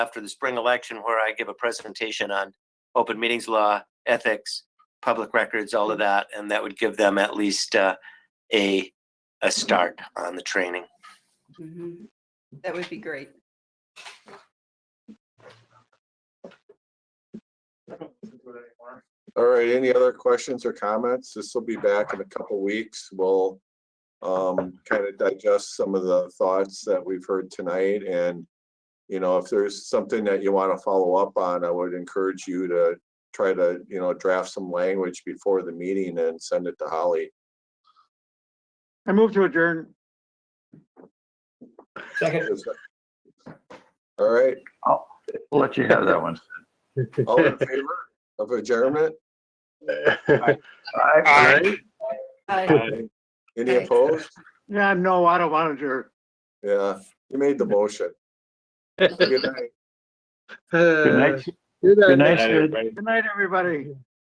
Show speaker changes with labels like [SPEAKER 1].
[SPEAKER 1] after the spring election where I give a presentation on open meetings law, ethics, public records, all of that, and that would give them at least uh, a, a start on the training.
[SPEAKER 2] Mhm. That would be great.
[SPEAKER 3] All right, any other questions or comments? This will be back in a couple weeks. We'll um, kind of digest some of the thoughts that we've heard tonight and, you know, if there's something that you want to follow up on, I would encourage you to try to, you know, draft some language before the meeting and send it to Holly.
[SPEAKER 4] I move to adjourn.
[SPEAKER 5] Second.
[SPEAKER 3] All right,
[SPEAKER 6] We'll let you have that one.
[SPEAKER 3] all in favor of adjournment?
[SPEAKER 6] Aye.
[SPEAKER 2] Bye.
[SPEAKER 3] Any opposed?
[SPEAKER 4] Yeah, no, I don't want to adjourn.
[SPEAKER 3] Yeah, you made the motion. Good night.
[SPEAKER 6] Good night. Good night, Sid.
[SPEAKER 4] Good night, everybody.